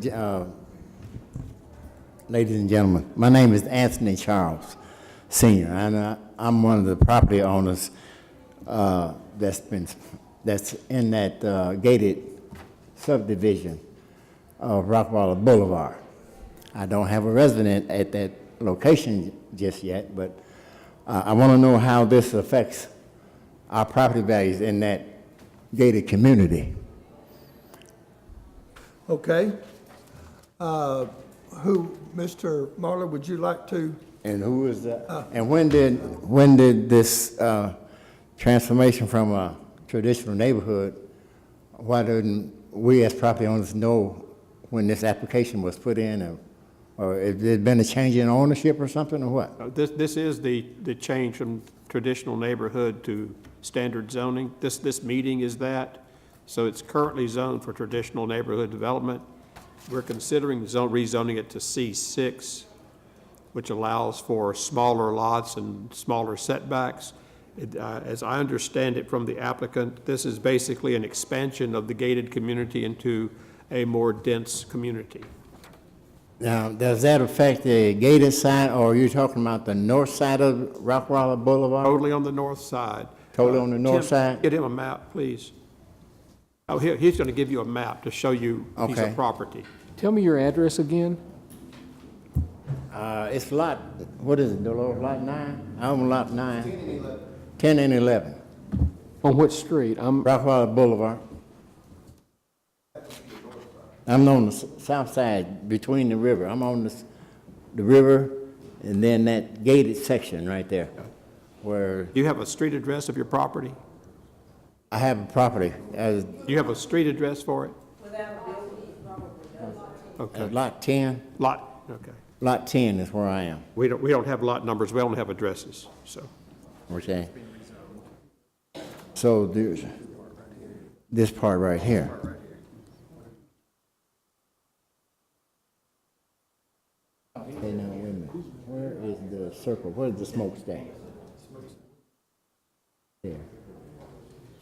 Ge- uh, Ladies and gentlemen, my name is Anthony Charles Senior, and I- I'm one of the property owners uh, that's been, that's in that uh, gated subdivision of Rockefeller Boulevard. I don't have a resident at that location just yet, but uh, I want to know how this affects our property values in that gated community. Okay. Uh, Who, Mr. Marler, would you like to, And who is that? And when did, when did this uh, transformation from a traditional neighborhood, why didn't we as property owners know when this application was put in? or- Or has there been a change in ownership or something, or what? Uh, This, this is the, the change from traditional neighborhood to standard zoning. This, this meeting is that. So it's currently zoned for traditional neighborhood development. We're considering zone, rezoning it to C6, which allows for smaller lots and smaller setbacks. It, uh, As I understand it from the applicant, this is basically an expansion of the gated community into a more dense community. Now, does that affect the gated side, or are you talking about the north side of Rockefeller Boulevard? Totally on the north side. Uh, Totally on the north Tim, side? Get him a map, please. Oh, he, he's gonna give you a map to show you piece Okay. of property. Tell me your address again. Uh, It's lot, what is it, Dolores, lot nine? I'm on lot nine. 10 and 11. 10 and 11, On what street? I'm, Rockefeller Boulevard. I'm on the s- south side between the river. I'm on the, s- the river and then that gated section right there where Do you have a street address of your property? I have a property as Do you have a street address for it? as Okay, lot 10. lot, okay. Lot 10 is where I am, We don't, we don't have lot numbers, we only have addresses, so. okay? So there's this part right here. Okay, now, wait a minute. Where is the circle? Where's the smokestack? There.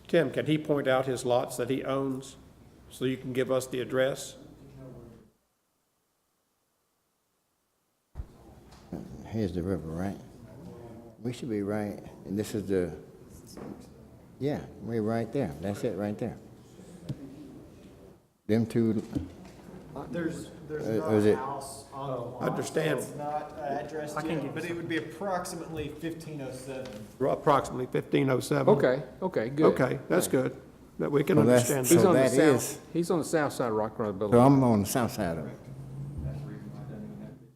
Tim, can he point out his lots that he owns, so you can give us the address? Here's the river, right? We should be right, and this is the, yeah, we're right there. That's it, right there. Them two, There's, there's Uh, not is a it- house on the lot. Understand. It's not uh, addressed yet, but it would be approximately fifteen oh seven. Approximately fifteen oh seven. okay, okay, good. Okay, that's good, that we can Well, that's- understand. He's So on the that is- south, he's on the south side of Rock Run so Boulevard. I'm on the south side of it.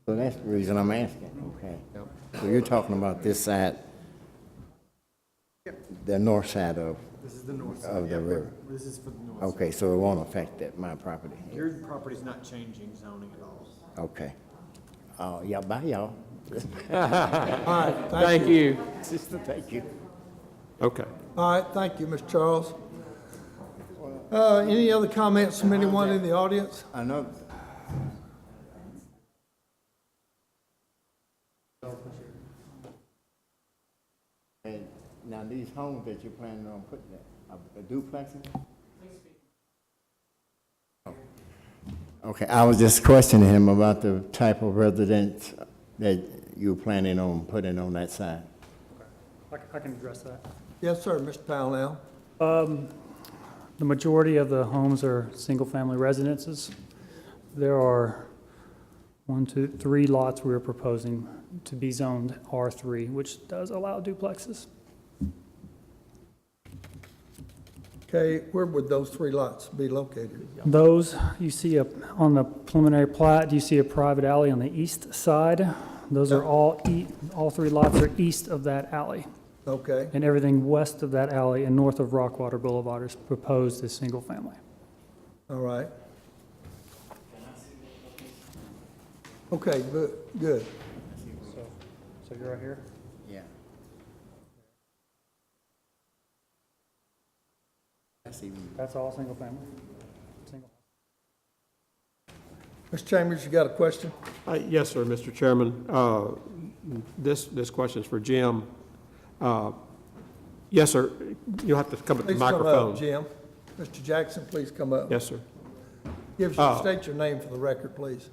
So that's the reason I'm asking, okay? So you're talking about this side, the north side of, This is the north Of side. the yeah, but river. This is for the north. side. okay, so it won't affect that, my property. Your property's not changing zoning at all. Okay. Uh, yeah, bye, y'all. all right, thank Thank you. you. Sister, thank you. Okay. All right, thank you, Mr. Charles. Uh, Any other comments from anyone in the audience? I know, and now these homes that you're planning on putting there, are duplexes? Okay, I was just questioning him about the type of residence that you're planning on putting on that side. I c- I can address that. Yes, sir, Mr. Powell. The majority of the homes are single-family residences. There are one, two, three lots we are proposing to be zoned R3, which does allow duplexes. Okay, where would those three lots be located? Those, you see a- on the preliminary plat, you see a private alley on the east side. Those are all, e- all three lots are east of that alley. Okay, And everything west of that alley and north of Rockwater Boulevard is proposed as single-family. all right. Okay, good, good. So you're right here? Yeah. That's even That's all single-family? Single. Mr. Chambers, you got a question? Uh, Yes, sir, Mr. Chairman. Uh, This, this question's for Jim. Uh, Yes, sir, you'll have to come to the Please come up, microphone. Jim. Mr. Jackson, please come up. Yes, sir. Give us, Oh. state your name for the record, please.